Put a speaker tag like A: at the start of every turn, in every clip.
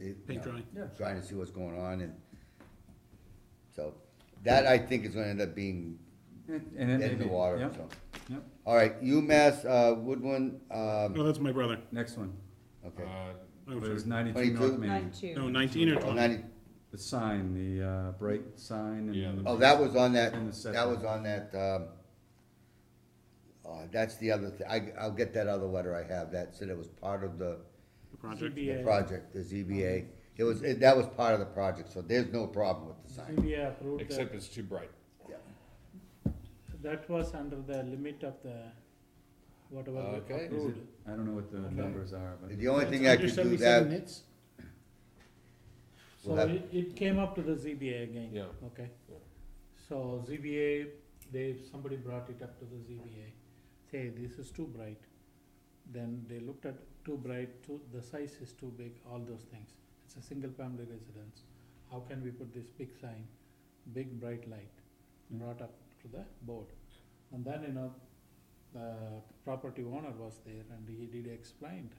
A: you
B: Paint
A: know,
B: drawing.
C: Yeah.
A: Trying to see what's going on and, so, that I think is gonna end up being
C: And and it may
A: dead in the
C: be-
A: water,
C: yep,
A: so.
C: Yep,
A: All right, UMass, uh, Woodland, um,
B: No, Oh, that's my brother.
C: next one,
A: okay.
B: Oh,
D: Uh,
C: it
B: sorry.
C: was ninety-two
A: 22?
C: North Main,
E: Nine two.
B: No, nineteen or
A: Oh,
B: twenty?
A: 90
C: the sign, the, uh, bright sign
D: Yeah,
C: and.
D: the-
A: oh, that was on that,
C: And the
A: that
C: setback.
A: was on that, um, uh, that's the other thing, I, I'll get that other letter I have, that said it was part of the
B: The project?
F: E
A: the project, the ZBA. It was, it- that was part of the project, so there's no problem with the sign.
F: CBA approved that,
D: Except it's too bright.
F: that was under the limit of the, whatever we
D: Okay.
C: Is it,
F: approved.
C: I don't know what the
F: Okay.
C: numbers are, but.
A: The only thing I could do that,
F: So
A: We'll have-
F: it, it came up to the ZBA again.
D: Yeah.
F: Okay.
D: Yeah.
F: So ZBA, they, somebody brought it up to the ZBA, say, this is too bright. Then they looked at too bright, too, the size is too big, all those things. It's a single family residence. How can we put this big sign, big bright light, brought up to the board? And then, you know, the property owner was there and he did explain.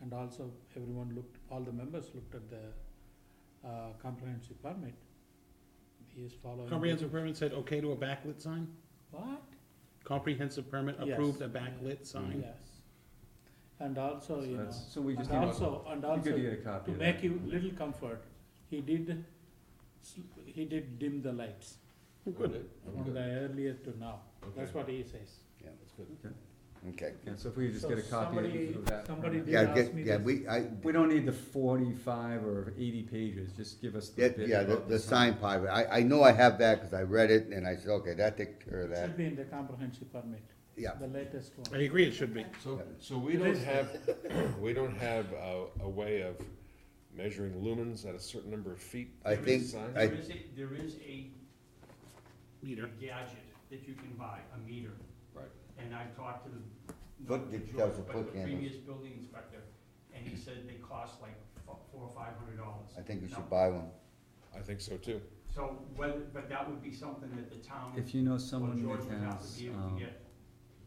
F: And also everyone looked, all the members looked at the, uh, comprehensive permit. He is following. the-
B: Comprehensive permit said okay to a backlit sign?
F: What?
B: Comprehensive permit
F: Yes.
B: approved a backlit sign?
F: Yes. And also,
G: Oh,
C: So
F: you know,
C: that's- So we
G: Uh,
C: just
F: and
C: need,
F: also, and
C: you could
F: also,
C: get a copy
F: to
C: of
F: make
C: that.
F: you little comfort, he did, sl- he did dim the lights
D: Good.
F: from the earlier to now. That's
D: Okay.
F: what he says.
D: That's good.
A: okay.
C: Yeah, so if we could just
F: So
C: get a copy
F: somebody-
C: of that.
F: somebody
C: permit.
F: They
A: Yeah,
F: asked
A: get,
F: me
A: yeah,
F: this.
A: we, I,
C: We don't need the forty-five or eighty pages, just give us the
A: that-
C: bit.
A: yeah, the,
C: about
A: the sign part, of it. I, I know I have that, cause I read it, and I said, okay, that takes care of
F: It
A: that,
F: should be in the comprehensive permit,
A: yeah.
F: the latest one.
B: I agree, it should be.
D: So, so we don't have, we don't have a, a way of measuring lumens at a certain number of feet?
A: I
D: for
A: think
D: each sign?
A: I-
G: There is a, there is a
B: Meter.
G: gadget that you can buy, a meter,
D: Right.
G: and I've talked to the.
A: Foot-
G: not to
A: it
G: George,
A: does a
G: but
A: foot
G: the
A: candle.
G: Previous building inspector, and he said they cost like fo- four or five hundred dollars.
A: I think we
G: Now,
A: should buy one.
D: I think so too.
G: So whether, but that would be something that the town,
C: If you know
G: or
C: someone
G: George
C: that
G: would have to
C: has,
G: be able
C: um,
G: to get.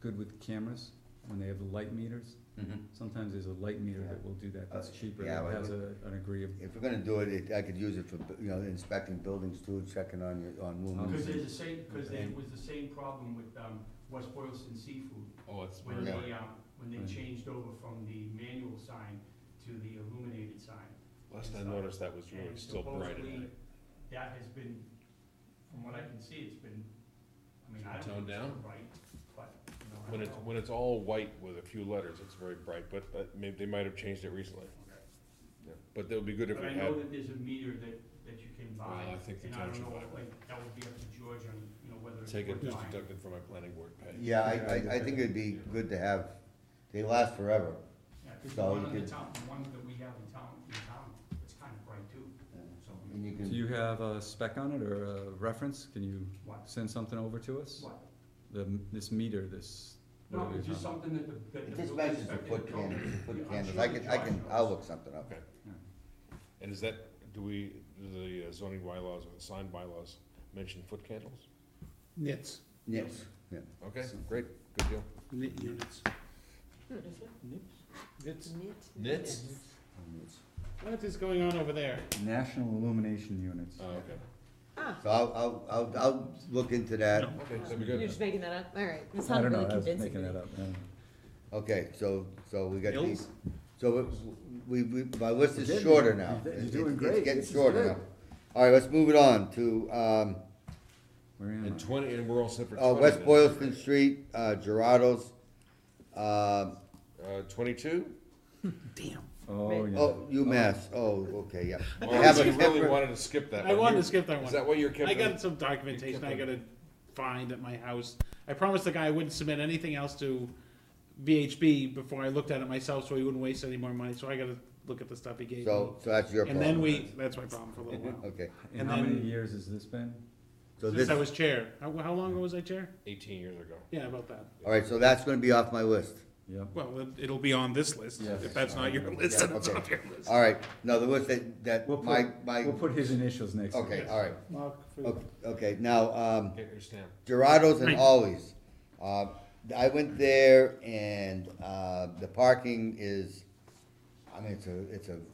C: good with cameras, when they have the light meters,
G: Mm-hmm.
C: sometimes there's a light meter that will do that, that's
A: Uh,
C: cheaper,
A: yeah,
C: that
A: but-
C: has a, an agreeable.
A: If we're gonna do it, it, I could use it for, you know, inspecting buildings too, checking on your, on
G: Oh, Cause
C: um,
A: lumens.
G: there's the same, cause there
A: Okay.
G: was the same problem with, um, West Boylston Seafood,
D: Oh, it's
G: when
D: very
G: they,
A: Yeah.
D: bright.
G: um, when
C: Right.
G: they changed over from the manual sign to the illuminated sign.
D: Last I noticed, that was really
G: And
D: still bright at
G: supposedly,
D: night.
G: That has been, from what I can see, it's been, I mean, I
D: It's
G: don't
D: been
G: know,
D: toned
G: right, but, you
D: When
G: know, I
D: it's,
G: don't know.
D: when it's all white with a few letters, it's very bright, but, but maybe, they might have changed it recently. Yeah. But that would be good if
G: But
D: we
G: I
D: had.
G: know that there's a meter that, that you can buy,
D: Well, I think the
G: and I
D: town
G: don't
D: should
G: know,
D: buy one.
G: like, that would be up to George on, you know, whether it's
D: Take
G: worth
D: it, just
G: buying.
D: deducted from my planning board pay.
A: Yeah, I, I, I think it'd be good to have, they last forever.
G: Yeah, 'cause
A: So
G: the one
A: you
G: in the
A: could-
G: town, the one that we have in town, in town, it's kind of bright too, so,
A: And you
C: Do
A: can,
C: you have a spec on it or a reference, can you
G: what,
C: send something over to us?
G: what?
C: The, this meter, this.
G: No,
C: whatever
G: it's
C: you're
G: just
C: talking
G: something that the, that the.
A: it just
G: building
A: mentions the
G: inspector
A: foot
G: told me.
A: candles, the
G: Yeah,
A: foot
G: I'm
A: candles,
G: sure
A: I
G: that
A: can, I
G: George
A: can,
G: knows.
A: I'll look something up.
D: And is that, do we, do the uh, zoning bylaws or the sign bylaws mention foot candles?
B: Nits,
A: Yes, yeah.
D: Okay, great, good deal.
B: nit units.
F: Nips?
B: Nits.
D: Nits?
B: What is going on over there?
C: about. National illumination units.
D: Oh, okay,
E: Ah,
A: So I'll, I'll, I'll, I'll look into that.
D: okay, that'd be
E: you're
D: good.
E: just making that up, alright, it's
C: I
E: not
C: don't know,
E: really
C: I was
E: convincing
C: making
E: me.
C: that up, I don't know.
A: Okay, so, so we got these,
B: Bills?
A: so we, we, we- my list
C: You're
A: is
C: getting-
A: shorter now.
C: you're
A: It's-
C: doing
A: it's
C: great.
A: getting
C: This is
A: shorter
C: good.
A: now. All right, let's move it on to, um,
C: Where am
D: And
C: I?
D: twenty, and we're all set for twenty.
A: uh, West
D: then.
A: Boylston Street, uh, Gerardo's. Um,
D: Uh, twenty-two?
B: Damn.
C: Oh, yeah.
A: oh, UMass, oh, okay, yeah. They
D: Or
A: have a
D: you really
A: temper-
D: wanted to skip that one?
B: I wanted
D: You-
B: to skip that
D: Is
B: one.
D: that why you're kept?
B: I
D: it?
B: got some documentation I
D: kept
B: gotta find at my house. I promised the guy I wouldn't submit anything else to VHB before I looked at it myself, so he wouldn't waste any more money, so I gotta look at the stuff he gave me.
A: So, so that's your
B: And
A: problem.
B: then we, that's my problem for a little while.
A: Okay,
C: And
B: and
C: how many
B: then-
C: years has this been?
A: so
B: Since
A: this,
B: I
A: all
B: was chair, how, how long ago was I chair?
D: Eighteen years ago.
B: Yeah, about that.
A: right, so that's gonna be off my list.
C: Yep.
B: Well, it- it'll be on this list.
C: Yes.
B: If that's not your list,
A: Yeah,
B: then it's
A: okay.
B: not your list.
A: All right, no, the list that, that,
C: We'll
A: my,
C: put,
A: my,
C: we'll put his initials next to it.
A: okay, all right,
F: Mark Freeman.
A: okay, okay, now, um,
D: Get your stamp.
A: Gerardo's and
B: Right.
A: Always. Uh, I went there and, uh, the parking is, I mean, it's a, it's a